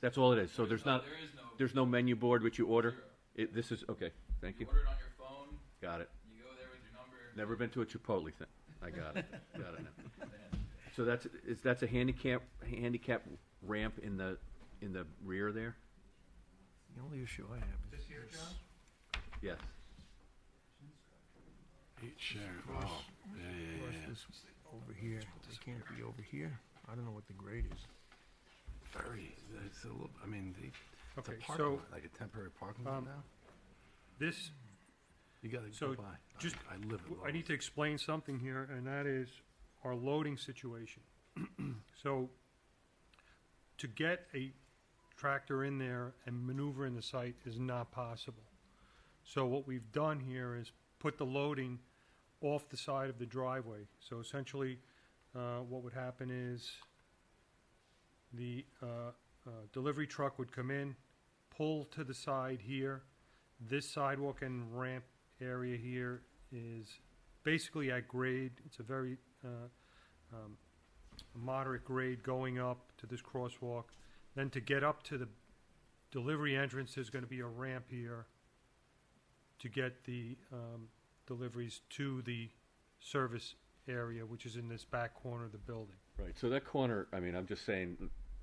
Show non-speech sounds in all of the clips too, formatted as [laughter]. That's all it is. So there's no- not, There is no. there's no menu board which you order? Zero. It, this is, okay, thank you. order it on your phone, Got it. you go there with your number. Never been to a Chipotle thing. I got it. Got it now. So that's, is, that's a handicap, handicap ramp in the, in the rear there? The only issue I have is. This here, this John? Yes. Eat share. Cross- Oh, yeah, yeah, cross yeah. this over here, it can't be over here, I don't know what the grade is. Very. It's a little. I mean, the, it's a Okay, parking so, lot, like a temporary parking lot um, now. this, You got to so go by. I- just- I, live. w- at I need to Lowe's. explain something here, and that is our loading situation. [clears throat] So, to get a tractor in there and maneuver in the site is not possible. So what we've done here is put the loading off the side of the driveway. So essentially, uh, what would happen is the uh, uh, delivery truck would come in, pull to the side here. This sidewalk and ramp area here is basically at grade. It's a very uh, um, moderate grade going up to this crosswalk. Then to get up to the delivery entrance, there's going to be a ramp here to get the um, deliveries to the service area, which is in this back corner of the building. Right, so that corner, I mean, I'm just saying,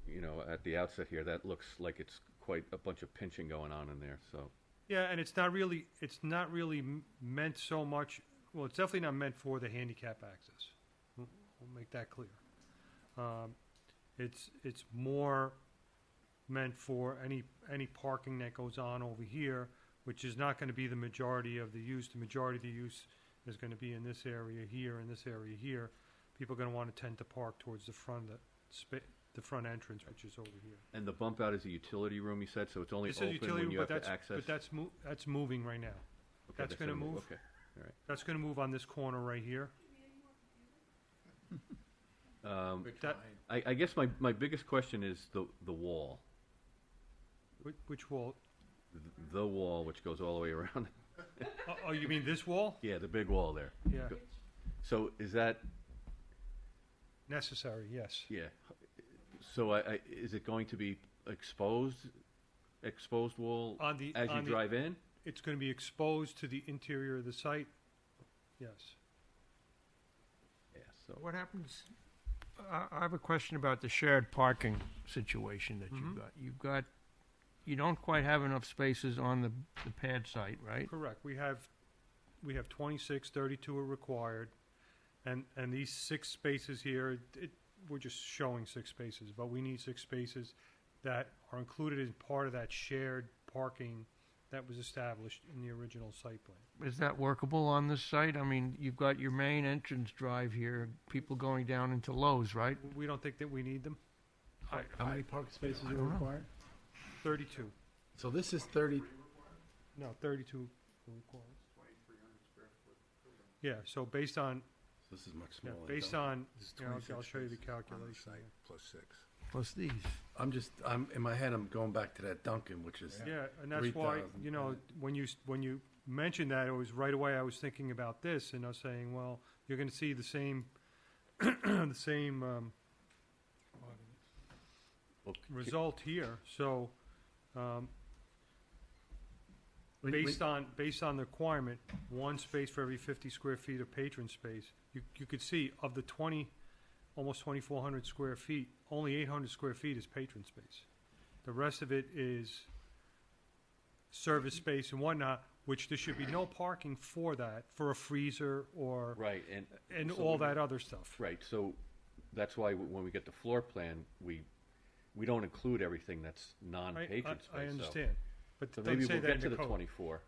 you know, at the outset here, that looks like it's quite a bunch of pinching going on in there, so. Yeah, and it's not really it's not really m- meant so much. Well, it's definitely not meant for the handicap access. We'll we'll make that clear. Um, it's it's more meant for any any parking that goes on over here, which is not going to be the majority of the use. The majority of the use is going to be in this area here, in this area here. People are going to want to tend to park towards the front of the spa- the front entrance, which is over here. And the bump out is a utility room, you said, so it's only This is open utility, when you room, have but to that's access? but that's mo- that's moving right now. Okay, that's gonna in the- move. Okay, all right. That's going to move on this corner right here. Um, That, I, I guess my, my biggest question is the, the wall, which, which wall? Th- the wall which goes all the way around. [laughs] Oh, oh, you mean this wall? Yeah, the big wall there. Yeah, Go- So is that, necessary. Yes. yeah, so I, I, is it going to be exposed, exposed wall On the as you on the- drive in? it's going to be exposed to the interior of the site. Yes. Yeah, so. What happens, I, I have a question about the shared parking situation that Mhm. you've got. You've got, you don't quite have enough spaces on the, the pad site, right? Correct. We have we have 26, 32 are required, and and these six spaces here, it, we're just showing six spaces, but we need six spaces that are included as part of that shared parking that was established in the original site plan. Is that workable on this site? I mean, you've got your main entrance drive here, people going down into Lowe's, right? We don't think that we need them. How many parking spaces I are don't know. required? 32. So this is thirty. No, thirty-two requires. Yeah, so based on, This is much yeah, smaller. based than- on, This is you know, I'll- 26 I'll show you the spaces on the calculation. site, Plus six. Plus these. I'm just. I'm in my head. I'm going back to that Duncan, which is. Yeah, and that's why, 3,000, you know, when you, s- when you mentioned that, it was right away, I was thinking about this, and I was saying, well, you're gonna see the same, [clears throat] the same, um, Well, c- result here, so, um, Wait, based on, based on the requirement, one space for every fifty square feet of patron space. You, you could see of the twenty, almost twenty-four hundred square feet, only eight hundred square feet is patron space. The rest of it is service space and whatnot, which there should be no parking for that, for a freezer or, Right, and. and so all we- that other stuff. Right, so that's why w- when we get the floor plan, we, we don't include everything that's I- I- non-patron space. I so- understand, but So don't maybe say we'll that in get to the the code. twenty-four.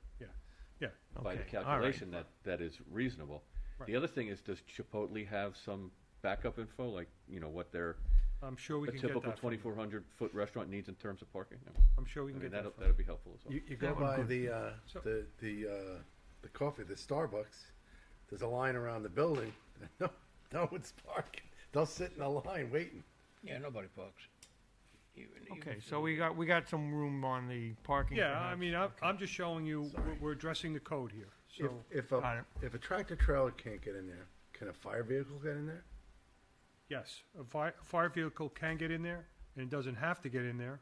Yeah, by the Okay, all right. calculation that, that is reasonable. The Right. other thing is, does Chipotle have some backup info, like, you know, what their, I'm sure we a can get that. typical from you. twenty-four hundred foot restaurant needs in terms of parking? No. I'm sure we I can mean, get that'll, that. from that'd be helpful as well. You, you go That would by good. the, uh, So- the, the, uh, the coffee, the Starbucks, there's a line around the building, [laughs] no, no one's parking, they'll sit in a line waiting. Yeah, nobody parks. Even, Okay, so we got, we got some room on the parking. Yeah, I perhaps. mean, I'm, I'm just showing you, we're, we're addressing the code here, If, so, if Got a, it. if a tractor trailer can't get in there, can a fire vehicle get in there? yes, a fire, fire vehicle can get in there, and it doesn't have to get in there,